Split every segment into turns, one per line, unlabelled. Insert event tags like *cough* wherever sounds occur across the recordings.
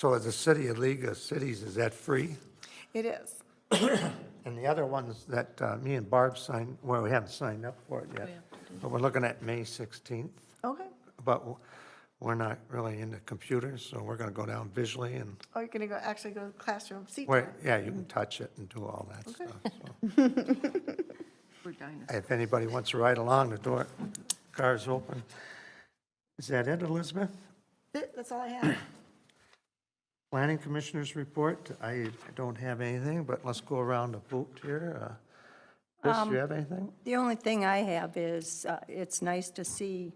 So as a city, a league of cities, is that free?
It is.
And the other ones that uh, me and Barb signed, well, we haven't signed up for it
Oh,
yet, but we're looking at May 16th.
Okay.
But w- we're not really into computers, so we're going to go down visually and,
Oh, you're gonna go, actually go to classroom seat
wait,
time.
yeah, you can touch it and do all that stuff. so.
*laughs* We're dinosaurs.
If anybody wants to ride along, the door, car's open. Is that it, Elizabeth?
Th- That's all I have.
Planning Commissioners report, I don't have anything, but let's go around the boot here. Uh, Chris, do you have anything?
The only thing I have is, uh, it's nice to see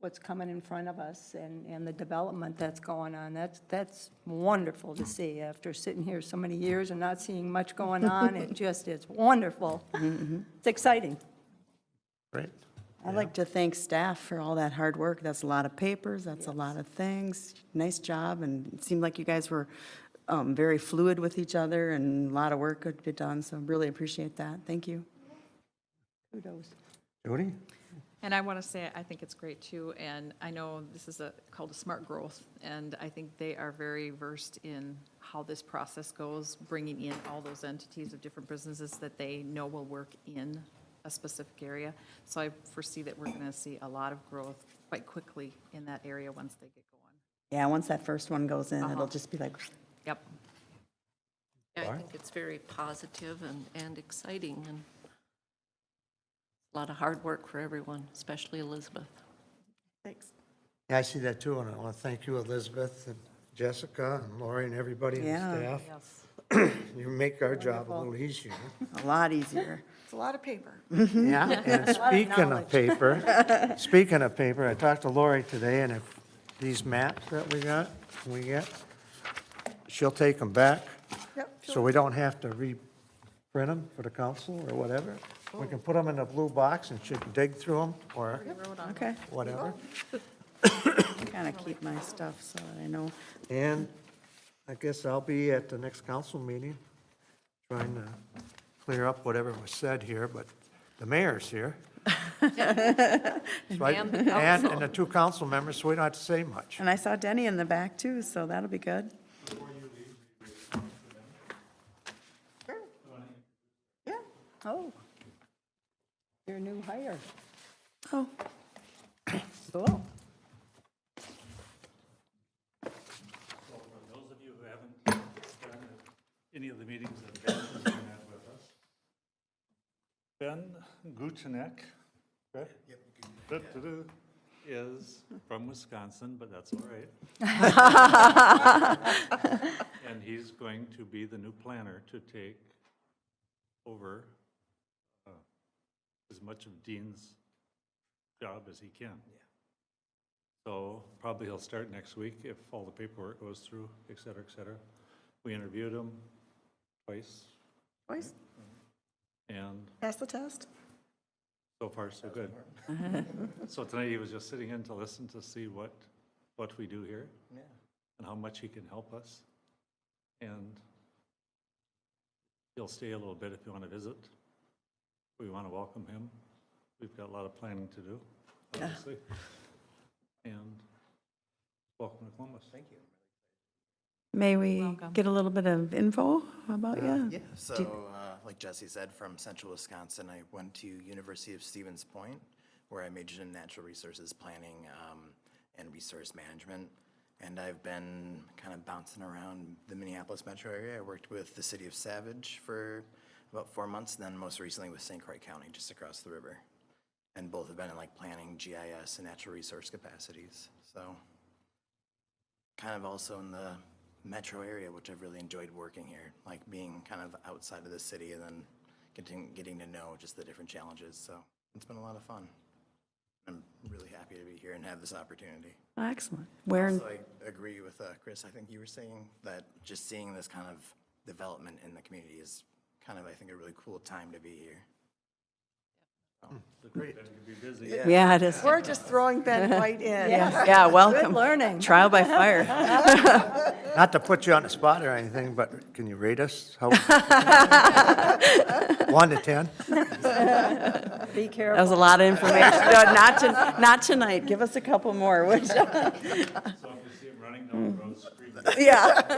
what's coming in front of us and, and the development that's going on. That's, that's wonderful to see after sitting here so many years and not seeing much going on. It just is wonderful. It's exciting.
Great.
I'd like to thank staff for all that hard work. That's a lot of papers, that's a lot of things. Nice job, and it seemed like you guys were um, very fluid with each other, and a lot of work could be done, so really appreciate that. Thank you.
Kudos.
Judy?
And I want to say, I think it's great too, and I know this is a, called a smart growth, and I think they are very versed in how this process goes, bringing in all those entities of different businesses that they know will work in a specific area. So I foresee that we're going to see a lot of growth quite quickly in that area once they get going.
Yeah, once that first one goes in, it'll just be like,
Yep.
Yeah, I think it's very positive and, and exciting and a lot of hard work for everyone, especially Elizabeth.
Thanks.
Yeah, I see that too, and I want to thank you, Elizabeth and Jessica and Lori and everybody and
Yeah.
staff. *clears throat* You make our job a little easier.
a lot easier.
It's a lot of paper.
Yeah, and speaking of paper, speaking of paper, I talked to Lori today, and if these maps that we got, we get, she'll take them back,
Yep,
so we don't have to reprint them for the council or whatever. We can put them in a blue box and she can dig through them or
Okay,
whatever.
kind of keep my stuff so that I know.
And I guess I'll be at the next council meeting, trying to clear up whatever was said here, but the mayor's here. So I-
And the
And, and the two council members, so we don't have to say much.
And I saw Denny in the back too, so that'll be good.
Yeah.
Oh, your new hire.
Oh,
Cool.
So for those of you who haven't been at any of the meetings that Ben has been at with us, Ben Guchenek, correct? Da-da-da, Is from Wisconsin, but that's all right. And he's going to be the new planner to take over uh, as much of Dean's job as he can. So probably he'll start next week if all the paperwork goes through, et cetera, et cetera. We interviewed him twice,
Boys,
and
pass the test.
so far, so good. *laughs* So tonight, he was just sitting in to listen to see what, what we do here, and how much he can help us. And he'll stay a little bit if you want to visit. We want to welcome him. We've got a lot of planning to *laughs* do, obviously. And welcome to Columbus. Thank you.
may we get a little bit of info about you?
Yeah, so uh, like Jesse said, from central Wisconsin, I went to University of Stevens Point, where I majored in natural resources planning um, and resource management. And I've been kind of bouncing around the Minneapolis metro area. I worked with the city of Savage for about four months, then most recently with St. Croix County, just across the river. And both have been in like planning, GIS, and natural resource capacities, so kind of also in the metro area, which I've really enjoyed working here, like being kind of outside of the city and then getting, getting to know just the different challenges. So it's been a lot of fun. I'm really happy to be here and have this opportunity.
Excellent. Where, in-
So I agree with uh, Chris. I think you were saying that just seeing this kind of development in the community is kind of, I think, a really cool time to be here.
Great. Be busy.
yeah, it is.
We're just throwing Ben White in.
Yeah, welcome.
learning.
Trial by fire.
Not to put you on the spot or anything, but can you rate us? How- One to 10?
Be
That
careful.
was a lot of information. No, Not to, not tonight. Give us a couple more, would you?
So if you see him running down the road,
one screen.
*laughs* Yeah.